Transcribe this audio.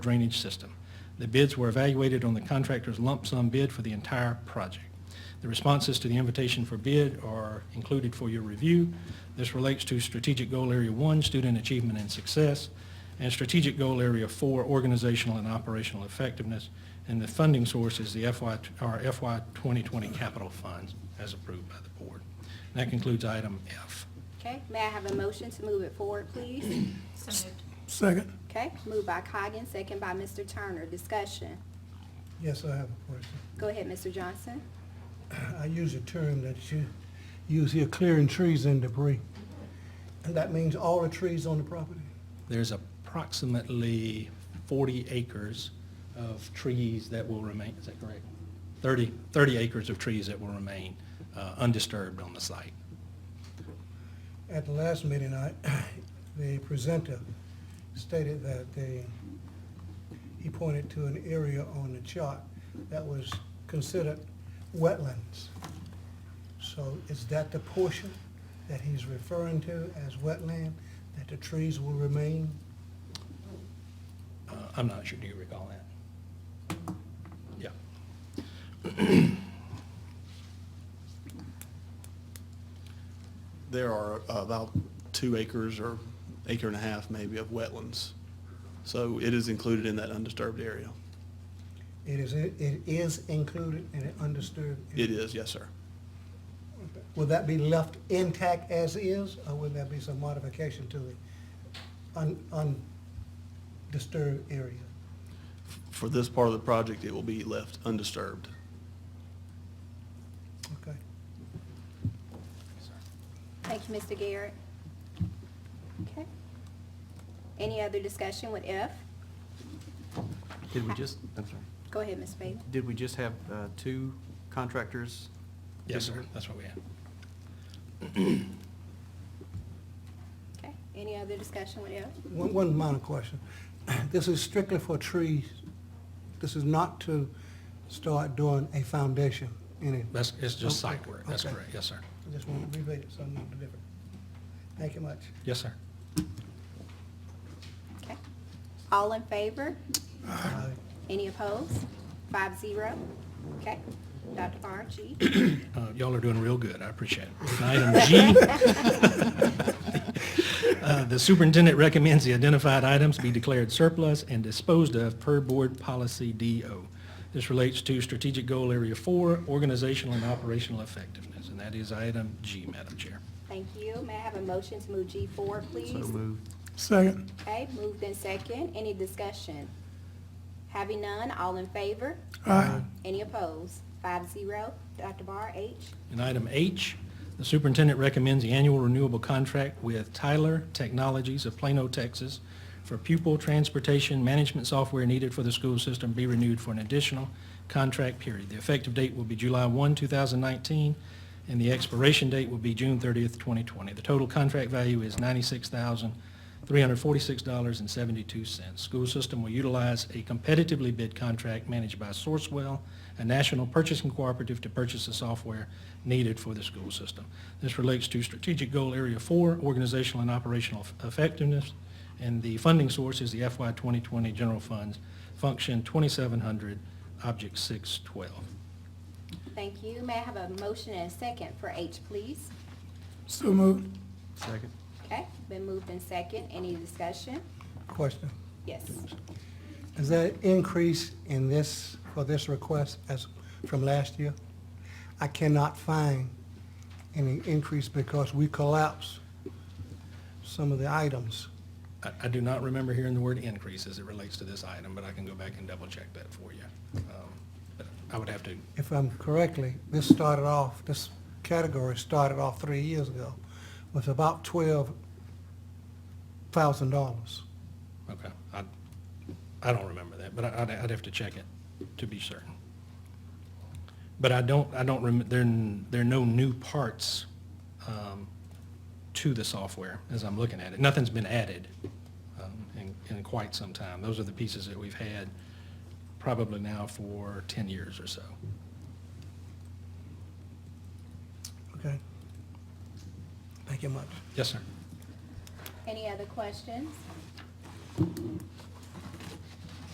drainage system. The bids were evaluated on the contractor's lump sum bid for the entire project. The responses to the invitation for bid are included for your review. This relates to Strategic Goal Area 1, Student Achievement and Success, and Strategic Goal Area 4, Organizational and Operational Effectiveness, and the funding source is the FY, or FY 2020 capital funds as approved by the board. And that concludes item F. Okay, may I have a motion to move it forward, please? So moved. Second. Okay, moved by Coggan, second by Mr. Turner. Discussion. Yes, I have a question. Go ahead, Mr. Johnson. I use a term that you use here, clearing trees and debris. And that means all the trees on the property? There's approximately 40 acres of trees that will remain, is that correct? 30, 30 acres of trees that will remain uh, undisturbed on the site. At the last meeting, I, the presenter stated that they, he pointed to an area on the chart that was considered wetlands. So is that the portion that he's referring to as wetland, that the trees will remain? Uh, I'm not sure, do you recall that? Yeah. There are about two acres or acre and a half maybe of wetlands. So it is included in that undisturbed area. It is, it is included in an undisturbed? area? It is, yes, sir. Will that be left intact as is, or will there be some modification to the un- undisturbed area? For this part of the project, it will be left undisturbed. Okay. Thank you, Mr. Garrett. Okay. Any other discussion with F? Did we just, I'm sorry, Go ahead, Ms. Bailey. did we just have uh, two contractors? Yes, sir, that's what we had. Okay, any other discussion with F? One, one minor question. This is strictly for trees. This is not to start doing a foundation in it. That's, it's just Okay, site work, that's okay. correct, yes, sir. I just want to relate it, so I'm not different. Thank you much. Yes, sir. Okay. All in favor? Uh-huh. Aye. Any opposed? Five zero. Okay. Dr. Barr, G. Uh, Y'all are doing real good, I appreciate it. Item G, Uh, The superintendent recommends the identified items be declared surplus and disposed of per board policy DO. This relates to strategic goal area four, organizational and operational effectiveness, and that is item G, Madam Chair. Thank you. May I have a motion to move G forward, please? So moved. Second. Okay, moved in second. Any discussion? Having none, all in favor? Aye. Any opposed? Five zero. Dr. Barr, H. And item H, the superintendent recommends the annual renewable contract with Tyler Technologies of Plano, Texas for pupil transportation management software needed for the school system be renewed for an additional contract period. The effective date will be July 1, 2019, and the expiration date will be June 30th, 2020. The total contract value is $96,346.72. School system will utilize a competitively bid contract managed by Sourcewell, a national purchasing cooperative to purchase the software needed for the school system. This relates to strategic goal area four, organizational and operational effectiveness, and the funding source is the FY 2020 general funds, function 2700, object 612. Thank you. May I have a motion and a second for H, please? So moved. Second. Okay, been moved in second. Any discussion? Question. Yes. Is there an increase in this, for this request as from last year? I cannot find any increase because we collapsed some of the items. I- I do not remember hearing the word increase as it relates to this item, but I can go back and double check that for you. Um, But I would have to If I'm correctly, this started off, this category started off three years ago with about twelve thousand dollars. Okay, I, I don't remember that, but I- I'd, I'd have to check it to be certain. But I don't, I don't remember, there, n- there are no new parts um, to the software as I'm looking at it. Nothing's been added um, in, in quite some time. Those are the pieces that we've had probably now for 10 years or so. Okay? Thank you much. Yes, sir. Any other questions?